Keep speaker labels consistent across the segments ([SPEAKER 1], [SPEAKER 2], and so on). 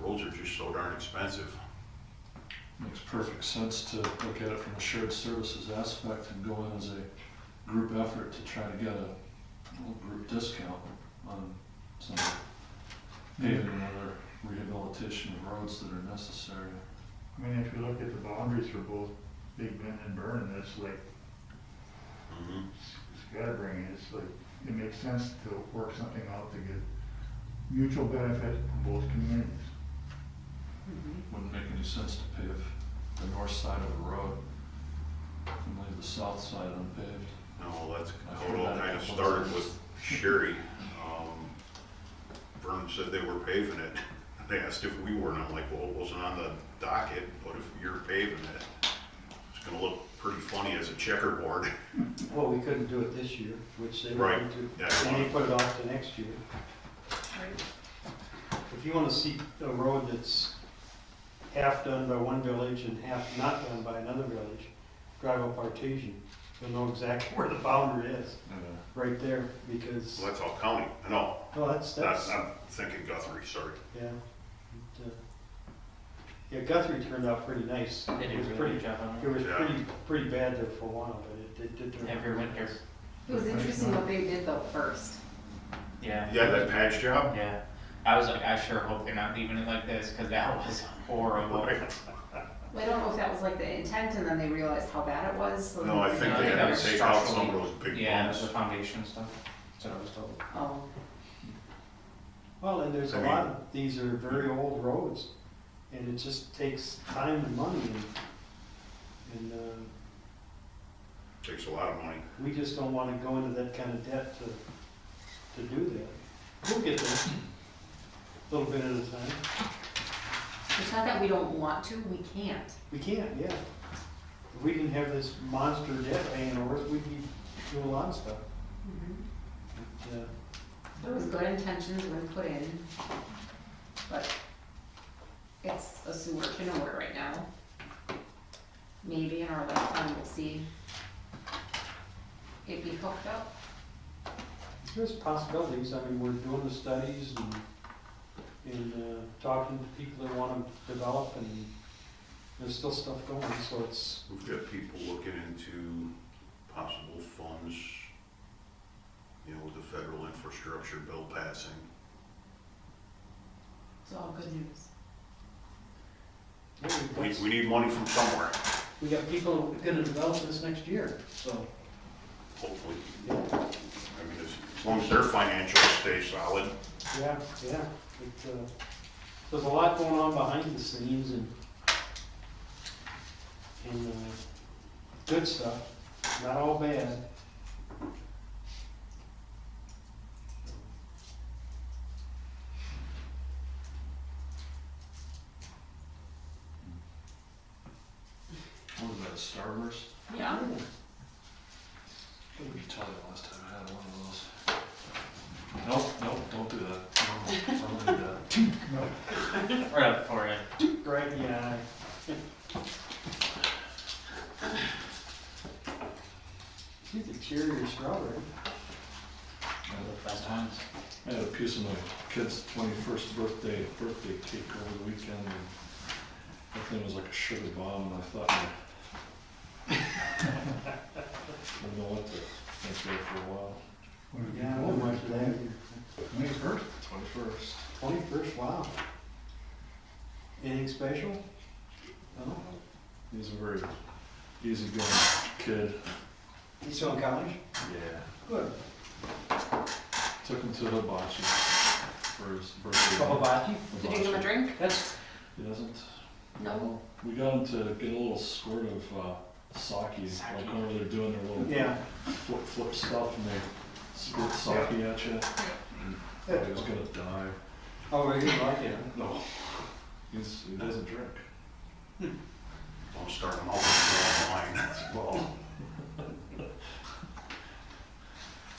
[SPEAKER 1] roads are just so darn expensive.
[SPEAKER 2] Makes perfect sense to look at it from a shared services aspect and go in as a group effort to try to get a little group discount on some paving and other rehabilitation of roads that are necessary.
[SPEAKER 3] I mean, if you look at the boundaries for both Big Bend and Burn, it's like,
[SPEAKER 2] Mm-hmm.
[SPEAKER 1] Mhm.
[SPEAKER 3] scattering, it's like, it makes sense to work something out to get mutual benefit from both communities.
[SPEAKER 2] Wouldn't make any sense to pave the north side of a road and leave the south side unpaved.
[SPEAKER 1] No, that's,
[SPEAKER 2] I
[SPEAKER 1] how it all
[SPEAKER 2] forgot
[SPEAKER 1] kind
[SPEAKER 2] about
[SPEAKER 1] of started
[SPEAKER 2] those.
[SPEAKER 1] with Sherry. Um, Vern said they were paving it. They asked if we were, and I'm like, well, it wasn't on the docket, but if you're paving it, it's gonna look pretty funny as a checkerboard.
[SPEAKER 4] Well, we couldn't do it this year, which they were
[SPEAKER 1] Right,
[SPEAKER 4] going to.
[SPEAKER 1] that's
[SPEAKER 4] And
[SPEAKER 1] one.
[SPEAKER 4] they put it off to next year.
[SPEAKER 5] Right.
[SPEAKER 4] If you wanna see a road that's half done by one village and half not done by another village, drive up Artesian. You'll know exactly where the boundary is,
[SPEAKER 2] Yeah.
[SPEAKER 4] right there, because,
[SPEAKER 1] Well, that's all county. I know,
[SPEAKER 4] well, that's,
[SPEAKER 1] that's,
[SPEAKER 4] that's,
[SPEAKER 1] I'm thinking Guthrie, sorry.
[SPEAKER 4] yeah. It, uh, Yeah, Guthrie turned out pretty nice.
[SPEAKER 6] They
[SPEAKER 4] It
[SPEAKER 6] did
[SPEAKER 4] was
[SPEAKER 6] a really
[SPEAKER 4] pretty,
[SPEAKER 6] good job on
[SPEAKER 4] it
[SPEAKER 6] it.
[SPEAKER 4] was
[SPEAKER 1] Yeah.
[SPEAKER 4] pretty, pretty bad there for a while, but it did, did turn out.
[SPEAKER 6] Every
[SPEAKER 4] pretty
[SPEAKER 6] winter.
[SPEAKER 4] nice.
[SPEAKER 5] It was interesting what they did though first.
[SPEAKER 6] Yeah.
[SPEAKER 1] Yeah, that patch job?
[SPEAKER 6] Yeah. I was like, I sure hope they're not leaving it like this because that was horrible.
[SPEAKER 5] I don't know if that was like the intent and then they realized how bad it was. so
[SPEAKER 1] No, I
[SPEAKER 5] then-
[SPEAKER 1] think
[SPEAKER 6] Yeah,
[SPEAKER 1] they had
[SPEAKER 6] was
[SPEAKER 1] to take out some of
[SPEAKER 6] structurally-
[SPEAKER 1] those big
[SPEAKER 6] Yeah, the
[SPEAKER 1] bumps.
[SPEAKER 6] foundation stuff. That's what I was told.
[SPEAKER 5] Oh,
[SPEAKER 4] Well, and there's
[SPEAKER 1] I
[SPEAKER 4] a
[SPEAKER 1] mean-
[SPEAKER 4] lot of, these are very old roads, and it just takes time and money, and, and, uh,
[SPEAKER 1] Takes a lot of money.
[SPEAKER 4] we just don't wanna go into that kind of debt to, to do that. We'll get there, a little bit at a time.
[SPEAKER 5] it's not that we don't want to, we can't.
[SPEAKER 4] We can, yeah. If we didn't have this monster debt hanging over us, we'd be doing a lot of stuff.
[SPEAKER 5] Mm-hmm.
[SPEAKER 4] But, uh,
[SPEAKER 5] There was good intentions when put in, but it's a sewer to nowhere right now. Maybe in our lifetime we'll see it be hooked up.
[SPEAKER 4] There's possibilities, I mean, we're doing the studies and, and uh, talking to people that wanna develop and there's still stuff going, so it's,
[SPEAKER 1] We've got people looking into possible funds, you know, with the federal infrastructure bill passing.
[SPEAKER 5] It's all good news.
[SPEAKER 1] We,
[SPEAKER 4] we
[SPEAKER 1] we need money from somewhere,
[SPEAKER 4] we got people gonna develop this next year, so.
[SPEAKER 1] hopefully. I
[SPEAKER 4] Yeah,
[SPEAKER 1] mean, as, as long as their financials stay solid.
[SPEAKER 4] yeah, yeah. It, uh, There's a lot going on behind the scenes and, and, uh, good stuff, not all bad.
[SPEAKER 2] What was that, Starburst?
[SPEAKER 5] Yeah.
[SPEAKER 2] What did you tell you last time I had one of those? Nope, nope, don't do that. Don't, don't do that.
[SPEAKER 6] Right up for it.
[SPEAKER 4] Right in the eye. You could cheer your strawberry.
[SPEAKER 6] Best times.
[SPEAKER 2] I had a piece of my kid's twenty-first birthday, birthday cake over the weekend, and that thing was like a sugar bomb, and I thought, I don't know what to think there for a while.
[SPEAKER 4] Yeah, what much of that?
[SPEAKER 3] May first,
[SPEAKER 2] Twenty-first.
[SPEAKER 4] Twenty-first, wow. Anything special? No?
[SPEAKER 2] He's a very easygoing kid.
[SPEAKER 4] You still in college?
[SPEAKER 2] Yeah.
[SPEAKER 4] Good.
[SPEAKER 2] Took him to hibachi for his birthday.
[SPEAKER 4] Kawabachi?
[SPEAKER 5] Did you give him a
[SPEAKER 2] Hibachi.
[SPEAKER 5] drink?
[SPEAKER 4] That's,
[SPEAKER 2] He doesn't.
[SPEAKER 5] No.
[SPEAKER 2] We got him to get a little squirt of uh, sake, like
[SPEAKER 6] Sake.
[SPEAKER 2] whenever they're doing their little
[SPEAKER 4] yeah,
[SPEAKER 2] flip flip stuff, and they squirt sake at you. Thought he was gonna die.
[SPEAKER 4] oh, right, you like it, huh?
[SPEAKER 2] No, he's, he doesn't drink.
[SPEAKER 1] Don't start them off with the wrong
[SPEAKER 2] Well,
[SPEAKER 1] line.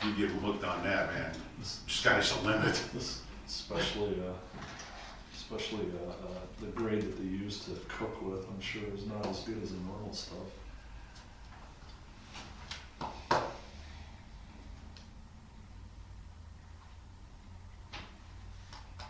[SPEAKER 1] You get hooked on that, man. Sky's the limit.
[SPEAKER 2] this- especially uh, especially uh, uh, the grade that they use to cook with, I'm sure is not as good as the normal stuff.